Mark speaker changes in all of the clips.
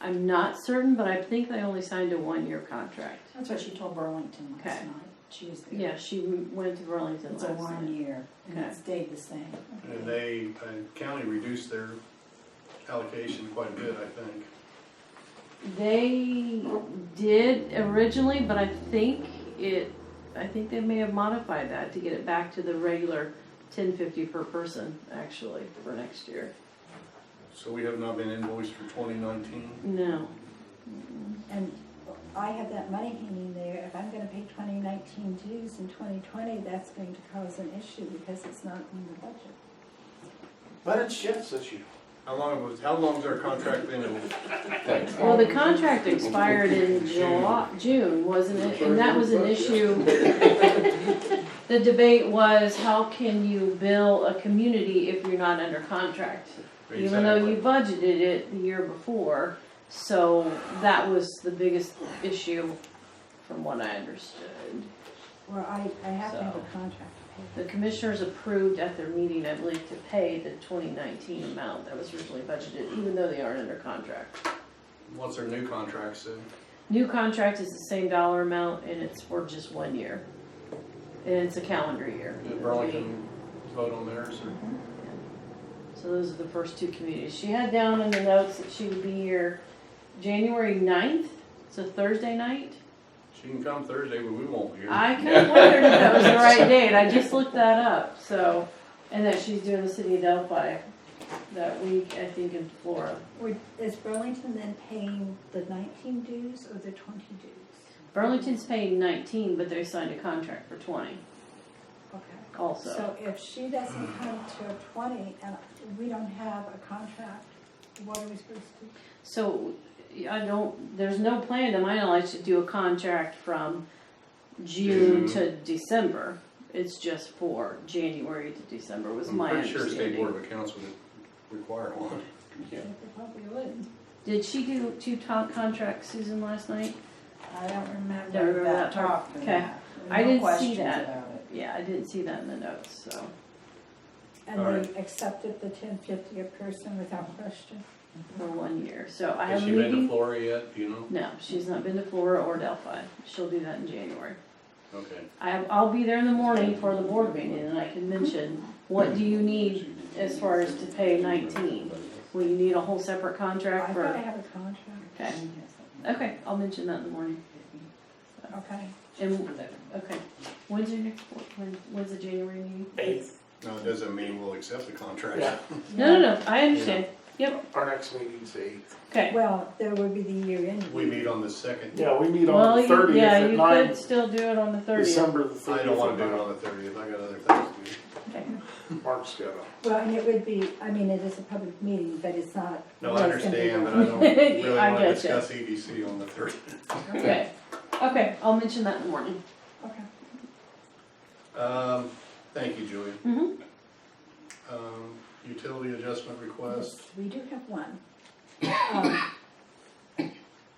Speaker 1: I'm not certain, but I think they only signed a one-year contract.
Speaker 2: That's what she told Burlington last
Speaker 1: Okay.
Speaker 2: night. She was there.
Speaker 1: Yeah, she w- went to Burlington
Speaker 2: It's a
Speaker 1: last
Speaker 2: one
Speaker 1: night.
Speaker 2: year and
Speaker 1: Okay.
Speaker 2: it stayed the same.
Speaker 3: And they, and county reduced their allocation quite a bit, I think.
Speaker 1: They did originally, but I think it, I think they may have modified that to get it back to the regular ten fifty per person, actually, for next year.
Speaker 3: So we have not been invoiced for twenty nineteen.
Speaker 1: No,
Speaker 4: And I have that money hanging there, if I'm gonna pay twenty nineteen dues in twenty twenty, that's going to cause an issue because it's not in the budget.
Speaker 5: But it shifts this year.
Speaker 3: How long was, how long's our contract been?
Speaker 1: well, the contract expired in July, June, wasn't it? And that was an issue. The debate was, how can you bill a community if you're not under contract? even though you budgeted it the year before. So that was the biggest issue, from what I understood.
Speaker 4: Or I, I have to have a
Speaker 1: So.
Speaker 4: contract to pay.
Speaker 1: The commissioners approved at their meeting, I believe, to pay the 2019 amount that was originally budgeted, even though they aren't under contract.
Speaker 3: What's our new contract say?
Speaker 1: New contract is the same dollar amount, and it's for just one year. And it's a calendar year.
Speaker 3: Did Burlington vote on theirs or?
Speaker 1: So those are the first two communities. She had down in the notes that she would be here January 9th, it's a Thursday night.
Speaker 3: She can come Thursday, but we won't be here.
Speaker 1: I kind of wondered if that was the right date. I just looked that up. So, and that she's doing the city of Delphi that week, I think, in Florida.
Speaker 4: Would- Is Burlington then paying the nineteen dues or the twenty dues?
Speaker 1: Burlington's paying 19, but they signed a contract for 20
Speaker 4: Okay.
Speaker 1: also.
Speaker 4: So if she doesn't come to twenty and we don't have a contract, what are we supposed to do?
Speaker 1: So, I don't, there's no plan to my knowledge to do a contract from June
Speaker 3: June.
Speaker 1: to December. It's just for January to December was
Speaker 3: I'm
Speaker 1: my
Speaker 3: pretty sure State
Speaker 1: understanding.
Speaker 3: Board of Accounts would require one.
Speaker 5: Yeah.
Speaker 4: They probably would.
Speaker 1: Did she do two top contracts, Susan, last night?
Speaker 2: I don't
Speaker 1: Don't remember
Speaker 2: remember
Speaker 1: that
Speaker 2: that
Speaker 1: part.
Speaker 2: talk. and
Speaker 1: Okay.
Speaker 2: that.
Speaker 1: I
Speaker 2: No
Speaker 1: didn't see
Speaker 2: questions
Speaker 1: that.
Speaker 2: about it.
Speaker 1: Yeah, I didn't see that in the notes, so.
Speaker 4: And they accepted the ten fifty a person without question.
Speaker 1: for one year. So I
Speaker 3: Has
Speaker 1: have a
Speaker 3: she been to
Speaker 1: meeting.
Speaker 3: Florida yet, do you know?
Speaker 1: No, she's not been to Florida or Delphi. She'll do that in January.
Speaker 3: Okay.
Speaker 1: I, I'll be there in the morning for the board meeting and I can mention, what do you need as far as to pay nineteen? Will you need a whole separate
Speaker 4: I
Speaker 1: contract
Speaker 4: thought I
Speaker 1: for,
Speaker 4: have a contract.
Speaker 1: okay, okay, I'll mention that in the morning.
Speaker 4: Okay.
Speaker 1: And, okay, when's your next, board- when, when's the January meeting?
Speaker 5: Eighth.
Speaker 3: No, it doesn't mean we'll accept the contract.
Speaker 5: Yeah.
Speaker 1: No, no, no, I understand. Yep,
Speaker 5: Our next meeting's eighth.
Speaker 1: okay.
Speaker 4: Well, there would be the year end.
Speaker 3: We meet on the second.
Speaker 5: Yeah, we meet
Speaker 1: Well,
Speaker 5: on the
Speaker 1: you,
Speaker 5: thirtieth
Speaker 1: yeah,
Speaker 5: at
Speaker 1: you
Speaker 5: nine,
Speaker 1: could still do it on the thirtieth.
Speaker 5: December the thirtieth.
Speaker 3: I don't wanna do it on the thirtieth, I got other things to do.
Speaker 1: Okay.
Speaker 5: Mark's got a-
Speaker 4: Well, and it would be, I mean, it is a public meeting, but it's not.
Speaker 3: No, I understand, but I don't
Speaker 1: Yeah,
Speaker 3: really
Speaker 1: I
Speaker 3: wanna
Speaker 1: getcha.
Speaker 3: discuss EDC on the thirtieth.
Speaker 1: Okay, okay, I'll mention that in the morning.
Speaker 4: Okay.
Speaker 3: Um, thank you, Julia.
Speaker 1: Mhm.
Speaker 4: Mm-hmm.
Speaker 3: Um, utility adjustment request,
Speaker 4: Yes, We do have one. Um,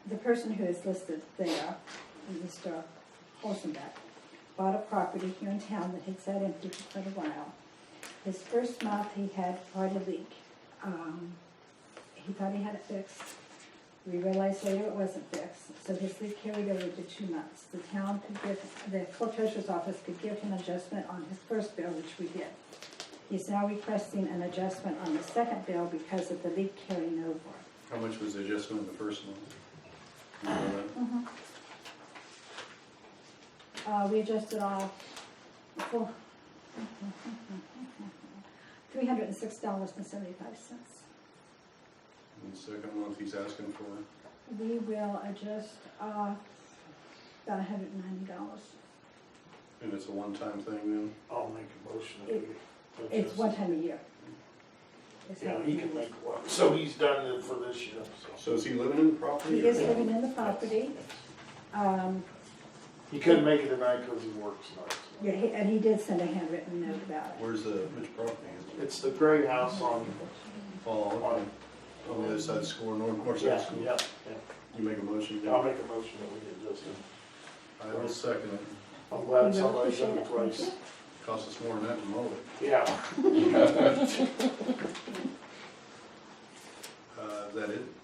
Speaker 4: The person who is listed there, Mr. Holzenbeck, bought a property here in town that had sat empty for quite a while. His first month, he had quite a leak. Um, He thought he had it fixed. We realized later it wasn't fixed, so his leak carried over to two months. The town could give, the clerk treasurer's office could give him adjustment on his first bill, which we did. He's now requesting an adjustment on the second bill because of the leak carrying over.
Speaker 3: how much was the adjustment in the first one? You know that?
Speaker 4: Uh, we adjusted all four, three hundred and six dollars and seventy-five cents.
Speaker 3: And the second month he's asking for,
Speaker 4: We will adjust, uh, about hundred and ninety dollars.
Speaker 3: and it's a one-time thing then?
Speaker 5: I'll make a motion. that
Speaker 4: It-
Speaker 5: we
Speaker 4: It's
Speaker 5: adjust.
Speaker 4: one time a year. It's
Speaker 5: Yeah,
Speaker 4: not-
Speaker 5: he can make one. So he's done it for this year, so.
Speaker 3: So is he living in the property?
Speaker 4: He is
Speaker 3: or-
Speaker 4: living in the property, um,
Speaker 5: He couldn't make it tonight because he works nights.
Speaker 4: yeah, he- and he did send a handwritten note about it.
Speaker 3: Where's the, which property is it?
Speaker 5: It's the gray house on,
Speaker 3: Oh, okay.
Speaker 5: on,
Speaker 3: on the other side of the school, north, north side of
Speaker 5: yeah,
Speaker 3: the school.
Speaker 5: yeah,
Speaker 3: You make a motion,
Speaker 5: yeah. I'll
Speaker 3: Dan?
Speaker 5: make a motion that we adjust it.
Speaker 3: I will second it.
Speaker 5: I'm
Speaker 4: We
Speaker 5: glad
Speaker 4: really
Speaker 5: somebody's done it
Speaker 4: appreciate it.
Speaker 5: twice.
Speaker 3: Cost us more than that to mow it.
Speaker 5: Yeah,
Speaker 3: Uh, is that it?